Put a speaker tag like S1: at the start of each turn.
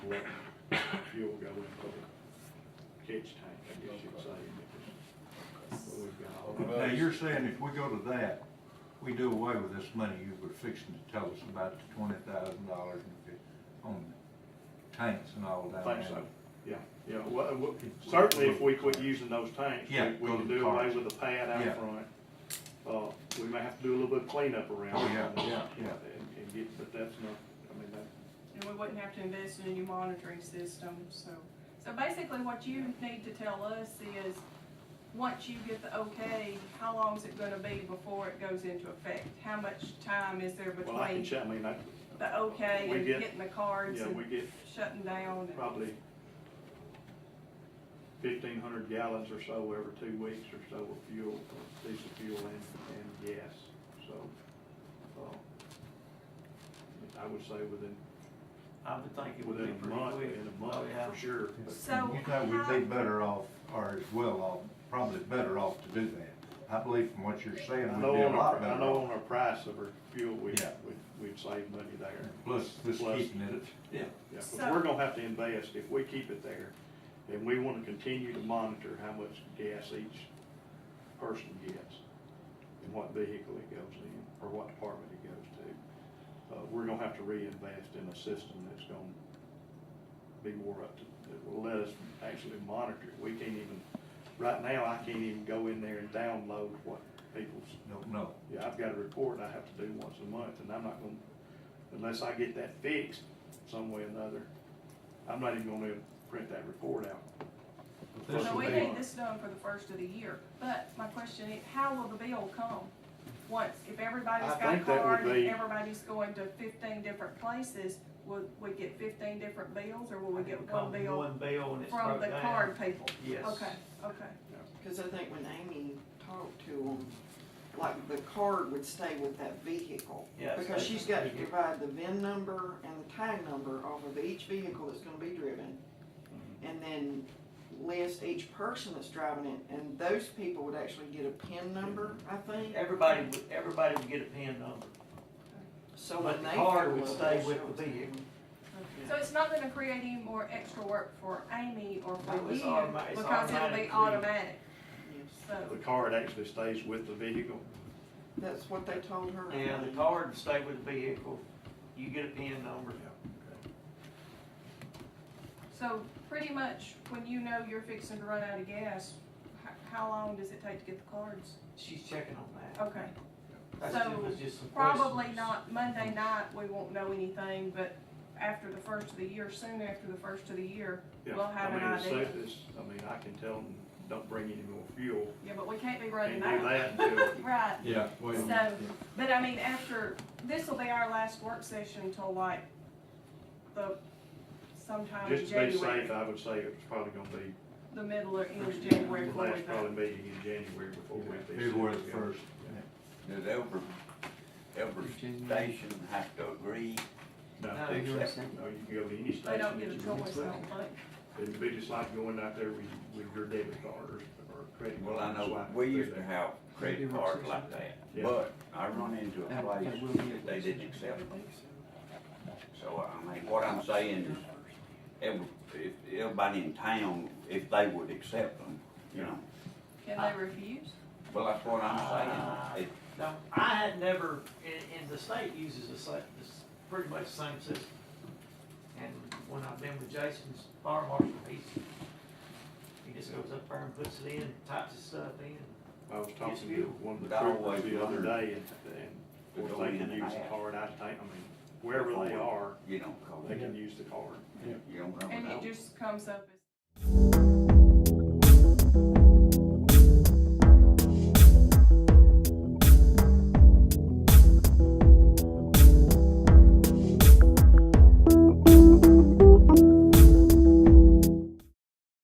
S1: let fuel go into the catch tank, I guess you'd say. But we've got all that.
S2: Now, you're saying if we go to that, we do away with this money you were fixing to tell us about the twenty thousand dollars on the tanks and all that.
S1: Think so, yeah, yeah, well, well, certainly if we quit using those tanks, we,
S2: Yeah,
S1: we
S2: go
S1: can
S2: to the
S1: do away
S2: cars.
S1: with the pad out
S2: Yeah.
S1: front. Uh, we may have to do a little bit of cleanup around.
S2: Oh, yeah,
S1: it,
S2: yeah, yeah.
S1: And, and get, but that's not, I mean, that,
S3: And we wouldn't have to invest in a new monitoring system, so. So basically, what you need to tell us is, once you get the okay, how long is it gonna be before it goes into effect? How much time is there
S1: well, I can
S3: between
S1: check, I mean, that,
S3: the okay
S1: We
S3: and
S1: get-
S3: getting the cards
S1: yeah, we
S3: and
S1: get
S3: shutting down? and-
S1: probably fifteen hundred gallons or so every two weeks or so of fuel, of diesel fuel and, and gas, so, uh, I would say within,
S4: I would think it would be
S1: within a
S4: pretty
S1: month,
S4: quick.
S1: in a
S4: Oh,
S1: month,
S4: yeah.
S1: for sure. but-
S3: So
S2: You know, we'd
S3: how-
S2: be better off, or as well off, probably better off to do that. I believe from what you're saying,
S1: I
S2: we'd be
S1: know
S2: a
S1: on our,
S2: lot
S1: I
S2: better
S1: know
S2: off.
S1: on our price of our fuel, we,
S2: Yeah.
S1: we- we'd save money there.
S2: Plus, this
S1: Plus-
S2: keeping it, yeah.
S1: Yeah, but
S3: So-
S1: we're gonna have to invest, if we keep it there, and we wanna continue to monitor how much gas each person gets, and what vehicle it goes in, or what department it goes to. Uh, we're gonna have to reinvest in a system that's gonna be more up to, that will let us actually monitor it. We can't even, right now, I can't even go in there and download what people's
S2: Don't know.
S1: yeah, I've got a report I have to do once a month, and I'm not gonna, unless I get that fixed some way or another, I'm not even gonna print that report out.
S2: But
S1: Well,
S2: this
S3: So
S2: will
S3: we
S2: be-
S3: need this done for the first of the year, but my question is, how will the bill come? Once, if everybody's
S1: I
S3: got a
S1: think that would
S3: card,
S1: be-
S3: and everybody's going to fifteen different places, will we get fifteen different bills, or will we
S4: It
S3: get
S4: would
S3: one
S4: come
S3: bill
S4: One bill and it's
S3: from
S4: broke
S3: the
S4: down.
S3: card people?
S4: Yes.
S3: Okay, okay,
S5: Because I think when Amy talked to them, like the card would stay with that vehicle.
S4: Yes,
S5: Because
S4: that's
S5: she's got to
S4: vehicle.
S5: provide the VIN number and the tag number off of each vehicle that's gonna be driven.
S4: Mm-hmm.
S5: And then list each person that's driving it, and those people would actually get a PIN number, I think.
S4: Everybody, would- everybody would get a PIN number.
S5: So
S4: but
S5: when
S4: the
S5: they
S4: card
S5: fill
S4: would
S5: up,
S4: stay
S5: they'll
S4: with
S5: show
S4: the
S5: it to
S4: vehicle.
S5: them.
S3: so it's not gonna create any more extra work for Amy or for
S4: No, it's
S3: you,
S4: automa- it's
S3: because it'll be
S4: automatically-
S3: automatic,
S5: Yes.
S3: so.
S1: The card actually stays with the vehicle.
S5: That's what they told her. I
S4: Yeah, the
S5: think.
S4: card would stay with the vehicle. You get a PIN number.
S3: So pretty much, when you know you're fixing to run out of gas, h- how long does it take to get the cards?
S4: She's checking on that.
S3: Okay,
S4: That's
S3: so
S4: it was just some
S3: probably
S4: questions.
S3: not Monday night, we won't know anything, but after the first of the year, soon after the first of the year,
S1: Yeah,
S3: We'll have
S1: I mean,
S3: an
S1: it's
S3: idea.
S1: safe as- I mean, I can tell them, don't bring any more fuel,
S3: yeah, but we can't be running
S1: can't do
S3: that.
S1: that until,
S3: Right,
S2: Yeah, wait a
S3: So-
S2: minute.
S3: but I mean, after, this'll be our last work session till like the, sometime in
S1: just to be
S3: January,
S1: safe, I would say it's probably gonna be
S3: the middle or end of January.
S1: the
S3: before we
S1: last
S3: vote.
S1: probably meeting in January before we. fix it.
S2: February the first.
S6: Does every, every station have to agree?
S1: No,
S4: No, you're
S6: Except-
S4: saying-
S1: no, you can go to any station.
S3: They don't
S1: that
S3: get a
S1: you
S3: choice,
S1: want.
S3: I don't think.
S1: It'd be just like going out there with, with your debit card or, or credit card.
S6: Well, I know,
S1: swiping
S6: we
S1: through
S6: used to
S1: there.
S6: have credit cards like that,
S1: Yeah.
S6: but I run into a place that they didn't accept them. So, I mean, what I'm saying is, every, if, everybody in town, if they would accept them, you know,
S3: Can they refuse?
S6: well, that's what I'm saying. It-
S4: No, I had never, and, and the state uses the same, this, pretty much the same system. And when I've been with Jason's fire marshal, he's, he just goes up there and puts it in, types his stuff in.
S1: I was
S4: Yes,
S1: talking
S4: we
S1: to
S4: do.
S1: one of the
S6: But I
S1: troopers
S6: always
S1: the other
S6: wondered
S1: day and,
S6: to
S1: and if
S6: go
S1: they
S6: in
S1: can
S6: and
S1: use the
S6: ask.
S1: card, I think, I mean, wherever they are,
S6: You know, 'cause
S1: they can use the card.
S6: you don't know.
S3: And
S6: without
S3: it just comes up as